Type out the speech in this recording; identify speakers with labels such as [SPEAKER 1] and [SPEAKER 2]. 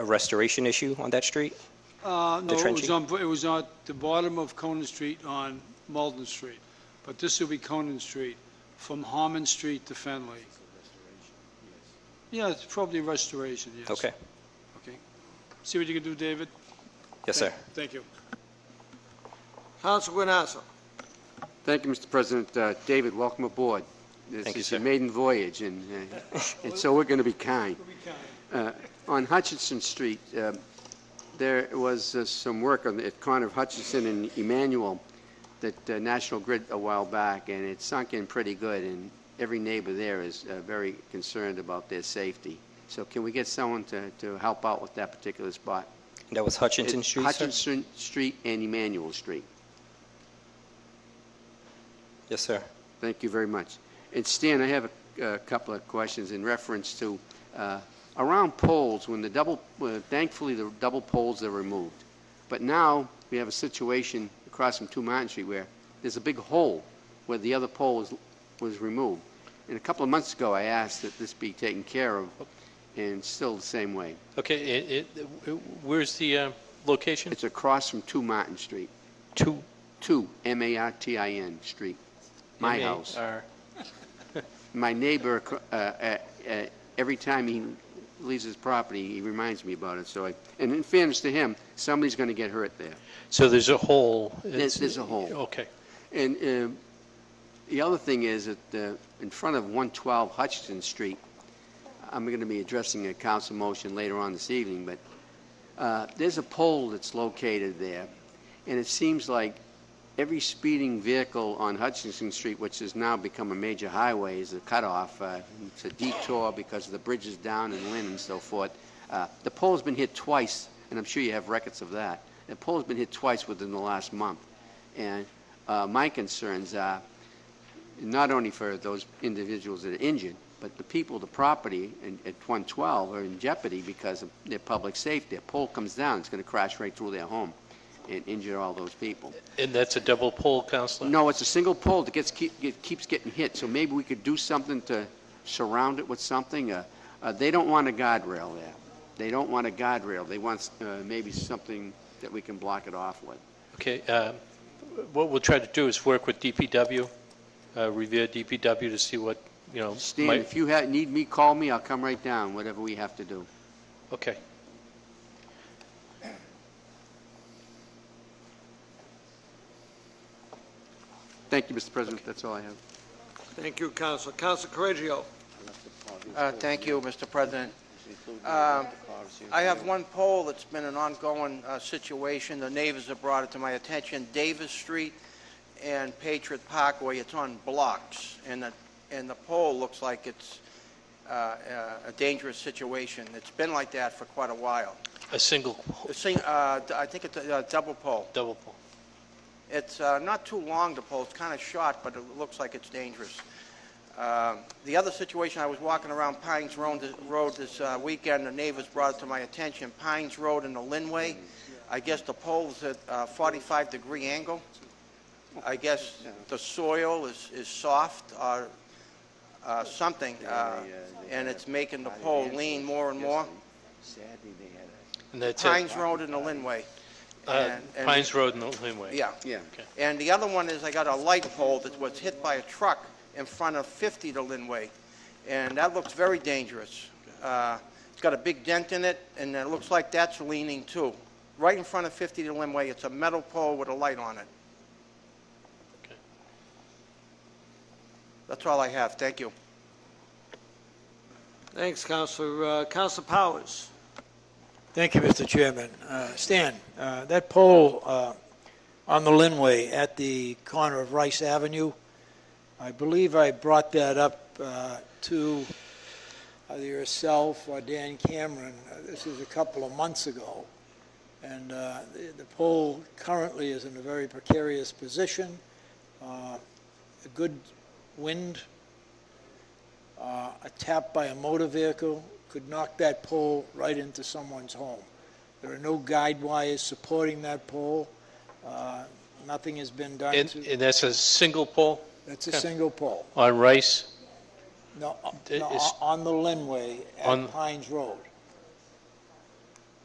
[SPEAKER 1] a restoration issue on that street?
[SPEAKER 2] Uh, No, it was
[SPEAKER 1] trenching?
[SPEAKER 2] on, it was on the bottom of Conan Street on Malden Street, but this will be Conan Street, from Harmon Street to Fenley. Yeah, it's probably restoration, yes.
[SPEAKER 1] Okay.
[SPEAKER 2] Okay. See what you can do, David?
[SPEAKER 1] Yes, sir.
[SPEAKER 2] Thank you.
[SPEAKER 3] Counsel Guanasso.
[SPEAKER 4] Thank you, Mr. President. Uh, David, welcome aboard.
[SPEAKER 1] Thank you,
[SPEAKER 4] This is your
[SPEAKER 1] sir.
[SPEAKER 4] maiden voyage, and, uh, and so we're going to be kind. Uh, On Hutchinson Street, um, there was uh, some work on, at corner of Hutchinson and Emmanuel that uh, National Grid a while back, and it sunk in pretty good, and every neighbor there is uh, very concerned about their safety. So can we get someone to, to help out with that particular spot?
[SPEAKER 1] That was Hutchinson
[SPEAKER 4] It's
[SPEAKER 1] Street, sir?
[SPEAKER 4] Hutchinson Street and Emmanuel Street.
[SPEAKER 1] Yes, sir.
[SPEAKER 4] Thank you very much. And Stan, I have a a couple of questions in reference to, uh, around poles, when the double, uh, thankfully, the double poles are removed. But now, we have a situation across from 2 Martin Street where there's a big hole where the other pole was was removed. And a couple of months ago, I asked that this be taken care of, and still the same way.
[SPEAKER 5] Okay, it, it, where's the uh, location?
[SPEAKER 4] It's across from 2 Martin Street,
[SPEAKER 5] Two.
[SPEAKER 4] 2 M-A-R-T-I-N Street, my
[SPEAKER 5] M A
[SPEAKER 4] house.
[SPEAKER 5] R.
[SPEAKER 4] my neighbor, uh, uh, uh, every time he leaves his property, he reminds me about it, so I, and in fairness to him, somebody's going to get hurt there.
[SPEAKER 5] So there's a hole.
[SPEAKER 4] There's-
[SPEAKER 5] It's-
[SPEAKER 4] there's a hole.
[SPEAKER 5] Okay.
[SPEAKER 4] And uh, the other thing is that uh, in front of 112 Hutchinson Street, I'm going to be addressing a council motion later on this evening, but uh, there's a pole that's located there, and it seems like every speeding vehicle on Hutchinson Street, which has now become a major highway, is a cutoff. uh, It's a detour because of the bridges down and Lynn and so forth. Uh, The pole's been hit twice, and I'm sure you have records of that. The pole's been hit twice within the last month. And uh, my concerns are not only for those individuals that are injured, but the people, the property in- at 112 are in jeopardy because of their public safety. A pole comes down, it's going to crash right through their home and injure all those people.
[SPEAKER 5] And that's a double pole, Counselor?
[SPEAKER 4] No, it's a single pole that gets, keep- get- keeps getting hit, so maybe we could do something to surround it with something. Uh, uh, They don't want a guardrail there. They don't want a guardrail. They want uh, maybe something that we can block it off with.
[SPEAKER 5] Okay, um, what we'll try to do is work with DPW, uh, Revere DPW to see what, you know.
[SPEAKER 4] Stan,
[SPEAKER 5] might-
[SPEAKER 4] if you ha- need me, call me, I'll come right down, whatever we have to do.
[SPEAKER 5] Okay.
[SPEAKER 4] Thank you, Mr. President, that's all I have.
[SPEAKER 3] Thank you, Counsel. Counsel Correggio.
[SPEAKER 6] Uh, Thank you, Mr. President. Um, I have one poll that's been an ongoing uh, situation. The neighbors have brought it to my attention. Davis Street and Patriot Parkway, it's on blocks, and the, and the pole looks like it's uh, uh, a dangerous situation. It's been like that for quite a while.
[SPEAKER 5] A single pole,
[SPEAKER 6] The sing- uh, d- I think it's a a double pole.
[SPEAKER 5] double pole.
[SPEAKER 6] It's uh, not too long to pull, it's kind of short, but it looks like it's dangerous. Um, The other situation, I was walking around Pines Road Road this uh, weekend, the neighbors brought it to my attention, Pines Road and the Linway, I guess the pole's at 45-degree angle. I guess the soil is is soft or uh, something, uh, and it's making the pole lean more and more.
[SPEAKER 4] Sadly, they had a...
[SPEAKER 5] And that's it.
[SPEAKER 6] Pines Road and the Linway.
[SPEAKER 5] Uh,
[SPEAKER 6] and- and-
[SPEAKER 5] Pines Road and the Laneway.
[SPEAKER 6] Yeah.
[SPEAKER 4] Yeah.
[SPEAKER 6] And the other one is I got a light pole that was hit by a truck in front of 50 to Linway, and that looks very dangerous. Uh, It's got a big dent in it, and it looks like that's leaning too. Right in front of 50 to Linway, it's a metal pole with a light on it.
[SPEAKER 5] Okay.
[SPEAKER 6] That's all I have, thank you.
[SPEAKER 3] Thanks, Counsel. Uh, Counsel Powers.
[SPEAKER 7] Thank you, Mr. Chairman. Uh, Stan, uh, that pole uh, on the Linway at the corner of Rice Avenue, I believe I brought that up uh, to either yourself or Dan Cameron, Uh, this is a couple of months ago, and uh, the the pole currently is in a very precarious position. Uh, A good wind, uh, a tap by a motor vehicle could knock that pole right into someone's home. There are no guide wires supporting that pole. Uh, Nothing has been done
[SPEAKER 5] And,
[SPEAKER 7] to,
[SPEAKER 5] and that's a single pole
[SPEAKER 7] that's a single pole.
[SPEAKER 5] on Rice?
[SPEAKER 7] No,
[SPEAKER 5] It
[SPEAKER 7] no,
[SPEAKER 5] is-
[SPEAKER 7] on the Linway
[SPEAKER 5] On-
[SPEAKER 7] at Pines Road.